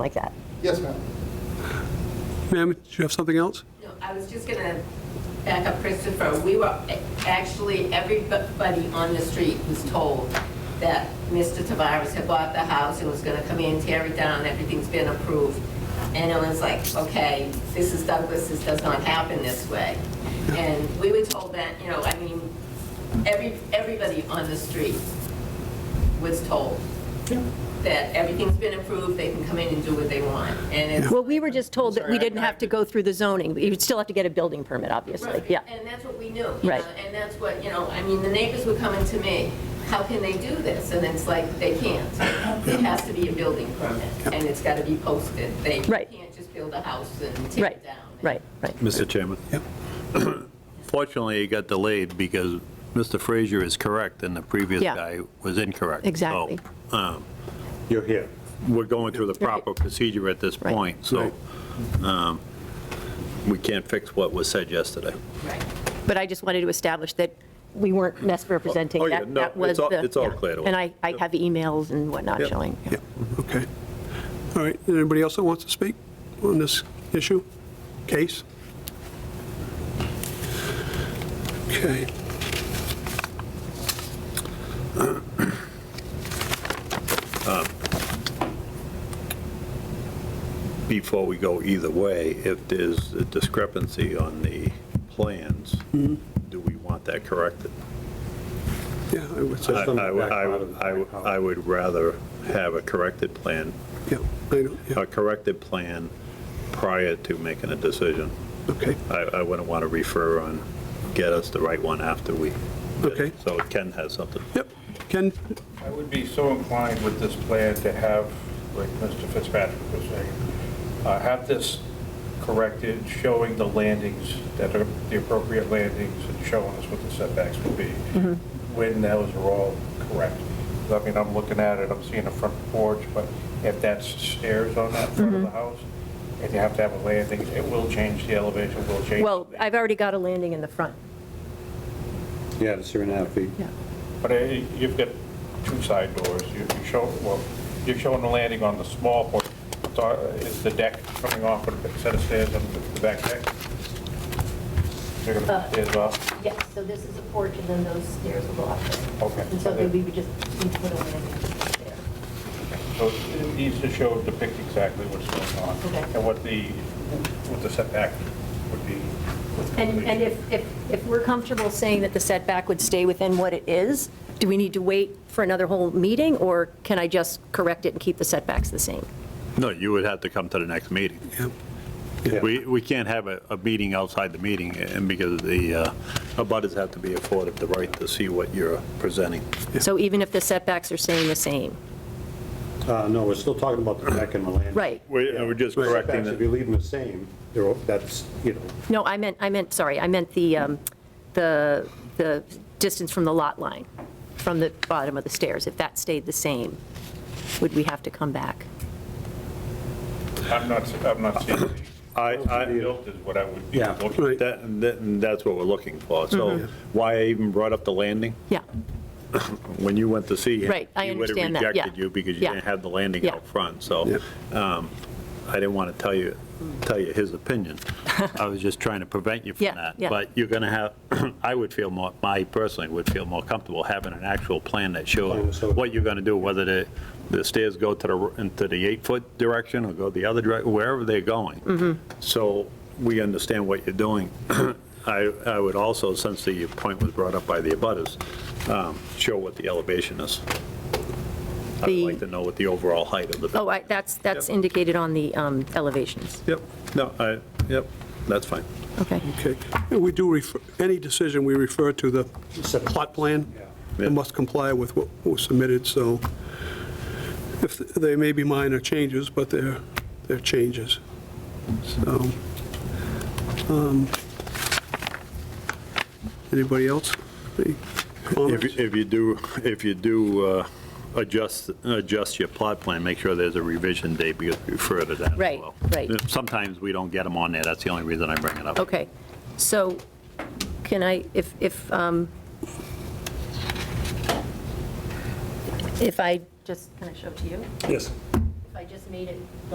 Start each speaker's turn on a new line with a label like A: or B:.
A: like that.
B: Yes, ma'am.
C: Ma'am, do you have something else?
D: No, I was just gonna back up Christopher. We were, actually, everybody on the street was told that Mr. Tavares had bought the house and was gonna come in, tear it down, everything's been approved. And Ellen's like, okay, this is Douglas, this does not happen this way. And we were told that, you know, I mean, every, everybody on the street was told that everything's been approved, they can come in and do what they want. And it's,
A: Well, we were just told that we didn't have to go through the zoning. You'd still have to get a building permit, obviously,
D: Right,
A: yeah.
D: And that's what we knew. you
A: Right.
D: know, And that's what, you know, I mean, the neighbors were coming to me, how can they do this? And it's like, they can't. It has to be a building permit, and it's got to be posted. They
A: Right.
D: can't just build a house and tear
A: Right,
D: it down.
A: right, right.
E: Mr. Chairman.
C: Yep.
E: Fortunately, it got delayed because Mr. Frazier is correct and the previous
A: Yeah.
E: guy was incorrect. So,
A: Exactly.
E: um, You're here. We're going through the proper procedure at this
A: Right.
E: point, so um, we can't fix what was said yesterday.
D: Right.
A: But I just wanted to establish that we weren't misrepresenting.
E: Oh, yeah,
A: That-
E: no,
A: that was
E: it's all-
A: the-
E: it's all
A: yeah.
E: cleared away.
A: And I, I have emails and whatnot
E: Yep.
A: showing. yeah.
C: Yeah, okay. All right, anybody else that wants to speak on this issue, case? Okay.
E: Before we go either way, if there's a discrepancy on the plans,
F: Mm-hmm.
E: do we want that corrected?
C: Yeah, I would
E: I
C: say,
F: on the
E: I would-
F: back
E: I
F: part
E: would-
F: of the
E: I would-
F: back column.
E: I would rather have a corrected plan
C: yeah, I don't, yeah,
E: a corrected plan prior to making a decision.
C: okay,
E: I, I wouldn't want to refer on, get us the right one after we.
C: Okay.
E: So Ken has something.
C: yep. Ken,
F: I would be so inclined with this plan to have, like Mr. Fitzpatrick was saying, uh, have this corrected, showing the landings, that are the appropriate landings, and showing us what the setbacks would be,
A: Mm-hmm.
F: when those are all correct. I mean, I'm looking at it, I'm seeing a front porch, but if that's stairs on that front
A: Mm-hmm.
F: of the house, and you have to have a landing, it will change the elevation, will change.
A: Well, I've already got a landing in the front.
G: Yeah, the three and a half feet.
A: Yeah.
F: But uh, you've got two side doors. You you show, well, you're showing the landing on the small porch. So, uh, Is the deck coming off with a set of stairs on the back deck? They're going
A: Uh.
F: to stairs off?
H: Yes, so this is a porch, and then those stairs will go up there.
F: Okay.
H: And so then we would just need to put a landing there.
F: So it needs to show, depict exactly what's going on
H: Okay.
F: and what the, what the setback would be. with
A: And, and
F: completion.
A: if, if, if we're comfortable saying that the setback would stay within what it is, do we need to wait for another whole meeting, or can I just correct it and keep the setbacks the same?
E: No, you would have to come to the next meeting.
C: yeah,
E: We, we can't have a, a meeting outside the meeting eh, and because the, uh, abutters have to be afforded the right to see what you're presenting.
A: So even if the setbacks are staying the same?
G: Uh, no, we're still talking about the deck and the landing.
A: Right.
E: We- We're just
G: The
E: correcting
G: setbacks, if you
E: it.
G: leave them the same, they're, all- that's, you know,
A: No, I meant, I meant, sorry, I meant the, um, the, the distance from the lot line, from the bottom of the stairs. If that stayed the same, would we have to come back?
F: I'm not, I'm not seeing the
E: I, I,
F: built is what I would be
G: Yeah.
F: looking
C: Right. Mm-hmm.
E: that, that- that's what we're looking for. So why I even brought up the landing?
A: Yeah,
E: when you went to see him.
A: Right, I understand that,
E: He would
A: yeah.
E: have rejected you because you
A: Yeah.
E: didn't have the landing
A: Yeah.
E: out front, so um, I didn't want to tell you, tell you his opinion. I was just trying to prevent you
A: Yeah,
E: from that.
A: yeah.
E: But you're going to have, I would feel more, I personally would feel more comfortable having an actual plan that
G: Plan,
E: showed
G: so-
E: what you're going to do, whether the, the stairs go to the, into the eight-foot direction or go the other direction, wherever they're going. So we understand what you're doing. I, I would also, since the point was brought up by the abutters, um, show what the elevation is. I'd
A: The-
E: like to know what the overall height of the
A: oh,
E: building.
A: I, that's, that's indicated on the um, elevations.
E: Yep, no, I, yep, that's fine.
A: Okay,
C: okay. And we do refer, any decision we refer to the plot plan,
E: Yeah.
C: it must comply with what was submitted, so if, they may be minor changes, but they're, they're changes, so. um, Anybody else? Any
E: If,
C: comments?
E: you- if you do, if you do uh, adjust, adjust your plot plan, make sure there's a revision date because we refer to that as
A: Right,
E: well.
A: right.
E: Sometimes we don't get them on there, that's the only reason I bring it up.
A: okay. So can I, if, if, um, if I just, can I show it to you?
G: yes.
H: If I just made it